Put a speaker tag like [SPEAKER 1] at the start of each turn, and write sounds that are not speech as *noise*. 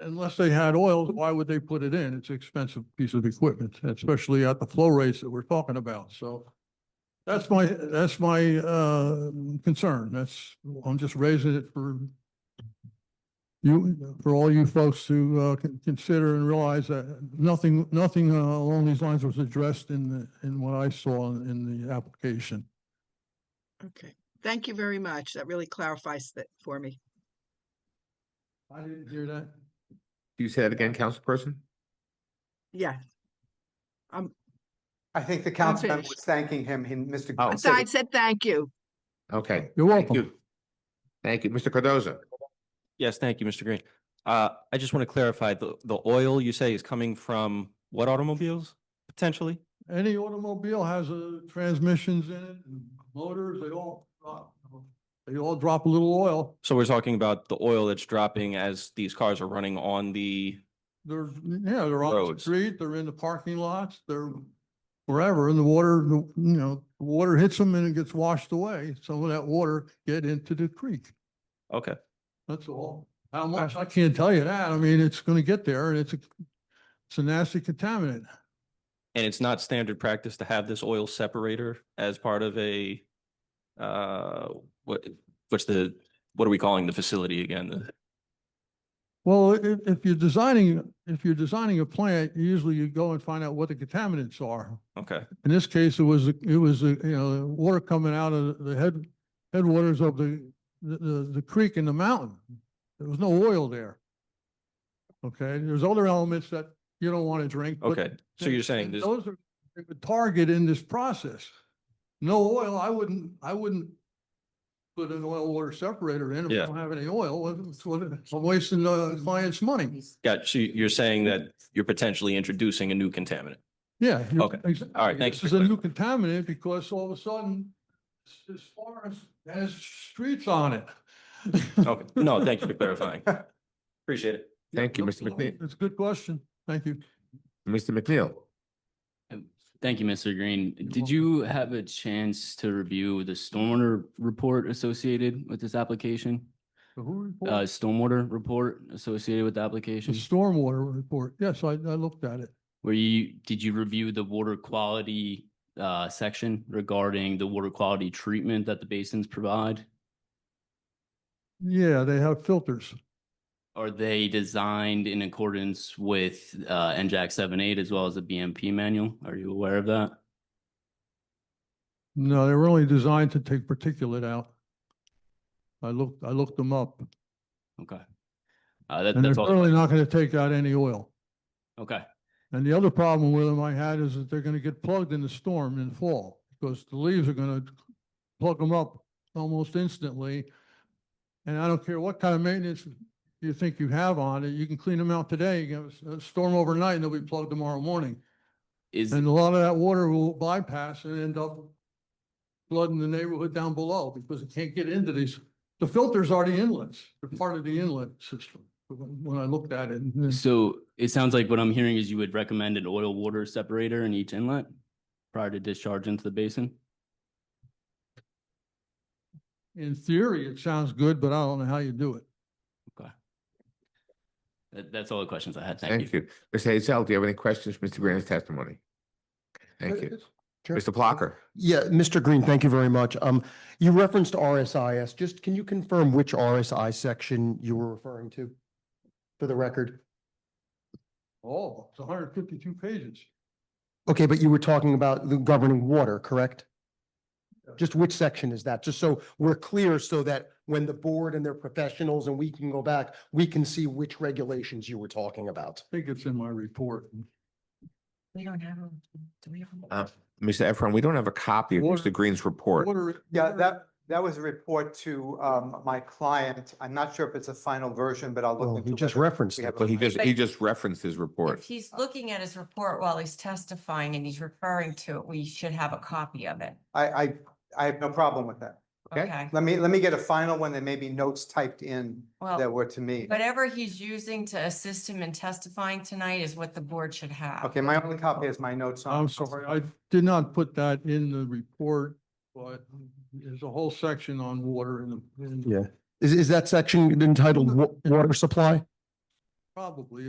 [SPEAKER 1] unless they had oil, why would they put it in? It's an expensive piece of equipment, especially at the flow rates that we're talking about, so. That's my, that's my, uh, concern. That's, I'm just raising it for you, for all you folks to, uh, con- consider and realize that nothing, nothing uh, along these lines was addressed in the, in what I saw in- in the application.
[SPEAKER 2] Okay, thank you very much. That really clarifies that for me.
[SPEAKER 1] I didn't hear that.
[SPEAKER 3] Do you say that again, councilperson?
[SPEAKER 2] Yeah,
[SPEAKER 4] I think the councilman
[SPEAKER 2] finished.
[SPEAKER 4] was thanking him, he- Mr.
[SPEAKER 3] Oh.
[SPEAKER 2] I
[SPEAKER 3] so
[SPEAKER 2] said- I
[SPEAKER 3] it-
[SPEAKER 2] said thank you.
[SPEAKER 3] Okay,
[SPEAKER 1] You're
[SPEAKER 3] thank
[SPEAKER 1] welcome.
[SPEAKER 3] you. Thank you, Mr. Cardoza.
[SPEAKER 5] Yes, thank you, Mr. Green. Uh, I just want to clarify, the, the oil you say is coming from what automobiles, potentially?
[SPEAKER 1] Any automobile has a transmissions in it, and motors, they all, drop- they all drop a little oil.
[SPEAKER 5] So we're talking about the oil that's dropping as these cars are running on the,
[SPEAKER 1] They're, yeah, they're on the
[SPEAKER 5] Roads.
[SPEAKER 1] street, they're in the parking lots, they're wherever, and the water, the you know, the water hits them and it gets washed away. Some of that water get into the creek,
[SPEAKER 5] okay,
[SPEAKER 1] that's all. How much, I can't tell you that. I mean, it's gonna get there and it's a, it's a nasty contaminant.
[SPEAKER 5] and it's not standard practice to have this oil separator as part of a, uh, what, what's the, what are we calling the facility again? The-
[SPEAKER 1] Well, if, if you're designing, if you're designing a plant, usually you go and find out what the contaminants are.
[SPEAKER 5] Okay,
[SPEAKER 1] In this case, it was, a- it was, a, you know, water coming out of the head, headwaters of the, the- the, the creek in the mountain. There was no oil there. Okay, there's other elements that you don't want to drink. but
[SPEAKER 5] okay, so you're saying
[SPEAKER 1] th-
[SPEAKER 5] this,
[SPEAKER 1] Those are the target in this process. No oil, I wouldn't, I wouldn't put an oil water separator in if I
[SPEAKER 5] Yeah.
[SPEAKER 1] don't have any oil. It's what- I'm wasting the uh, client's money.
[SPEAKER 5] got, so you're saying that you're potentially introducing a new contaminant?
[SPEAKER 1] Yeah. you're-
[SPEAKER 5] Okay.
[SPEAKER 1] exactly.
[SPEAKER 5] All right, thank
[SPEAKER 1] This
[SPEAKER 5] you
[SPEAKER 1] is
[SPEAKER 5] for
[SPEAKER 1] a new contaminant because all of a sudden, s- this forest has streets on it.
[SPEAKER 5] Okay, no, thank you for clarifying. Appreciate it.
[SPEAKER 3] Thank you,
[SPEAKER 1] No *laughs*
[SPEAKER 3] Mr.
[SPEAKER 1] problem.
[SPEAKER 3] McNeil.
[SPEAKER 1] It's a good question. Thank you.
[SPEAKER 3] Mr. McNeil,
[SPEAKER 6] Thank you, Mr. Green.
[SPEAKER 1] You're
[SPEAKER 6] Did
[SPEAKER 1] welcome.
[SPEAKER 6] you have a chance to review the stormwater report associated with this application?
[SPEAKER 1] So who reported?
[SPEAKER 6] Uh, stormwater report associated with the
[SPEAKER 1] The
[SPEAKER 6] application?
[SPEAKER 1] stormwater report. Yes, I, I looked at it.
[SPEAKER 6] Where you, did you review the water quality, uh, section regarding the water quality treatment that the basins provide?
[SPEAKER 1] Yeah, they have filters.
[SPEAKER 6] Are they designed in accordance with, uh, NJAC seven eight as well as the BMP manual? Are you aware of that?
[SPEAKER 1] No, they were only designed to take particulate out. I looked, I looked them up
[SPEAKER 6] Okay. Uh, that,
[SPEAKER 1] and they're
[SPEAKER 6] that's all.
[SPEAKER 1] really not going to take out any oil.
[SPEAKER 6] Okay.
[SPEAKER 1] And the other problem with them I had is that they're gonna get plugged in the storm in fall, because the leaves are gonna plug them up almost instantly. And I don't care what kind of maintenance you think you have on it, you can clean them out today, you can have a s- a storm overnight and they'll be plugged tomorrow morning.
[SPEAKER 6] Is,
[SPEAKER 1] And a lot of that water will bypass and end up flooding the neighborhood down below, because it can't get into these. The filters are the inlets, they're part of the inlet system, when when I looked at it. and-
[SPEAKER 6] So it sounds like what I'm hearing is you would recommend an oil water separator in each inlet prior to discharge into the basin?
[SPEAKER 1] In theory, it sounds good, but I don't know how you do it.
[SPEAKER 6] That, that's all the questions I had.
[SPEAKER 3] thank you. Ms. Hazel, do you have any questions, for Mr. Green's testimony? Thank you.
[SPEAKER 7] Chair?
[SPEAKER 3] Mr. Plucker,
[SPEAKER 7] Yeah, Mr. Green, thank you very much. Um, you referenced RSIS. Just can you confirm which RSI section you were referring to? For the record.
[SPEAKER 1] Oh, it's hundred fifty-two pages.
[SPEAKER 7] Okay, but you were talking about the governing water, correct? Just which section is that? Just so we're clear so that when the board and their professionals and we can go back, we can see which regulations you were talking about.
[SPEAKER 1] I think it's in my report.
[SPEAKER 8] We don't have them. Do we have them?
[SPEAKER 3] Uh, Mr. Efron, we don't have a copy of
[SPEAKER 1] Water-
[SPEAKER 3] Mr. Green's report.
[SPEAKER 1] Water-
[SPEAKER 4] Yeah,
[SPEAKER 1] water-
[SPEAKER 4] that, that was a report to, um, my client. I'm not sure if it's a final version, but I'll look.
[SPEAKER 7] Well,
[SPEAKER 4] into
[SPEAKER 7] Oh, he just
[SPEAKER 4] whether
[SPEAKER 7] referenced
[SPEAKER 4] we
[SPEAKER 7] it.
[SPEAKER 4] have a
[SPEAKER 3] But he
[SPEAKER 4] final-
[SPEAKER 3] just, he just referenced his
[SPEAKER 8] If
[SPEAKER 3] report.
[SPEAKER 8] he's looking at his report while he's testifying and he's referring to it, we should have a copy of it.
[SPEAKER 4] I, I, I have no problem with that.
[SPEAKER 3] Okay.
[SPEAKER 8] Okay,
[SPEAKER 4] Let me, let me get a final one. There may be notes typed in that
[SPEAKER 8] well,
[SPEAKER 4] were to me.
[SPEAKER 8] Oh. whatever he's using to assist him in testifying tonight is what the board should have.
[SPEAKER 4] Okay, my only copy is my notes on.
[SPEAKER 1] I'm sorry, I did not put that in the report, but there's a whole section on water in the. in-
[SPEAKER 7] Yeah. Is, is that section entitled wa- water supply?
[SPEAKER 1] Probably,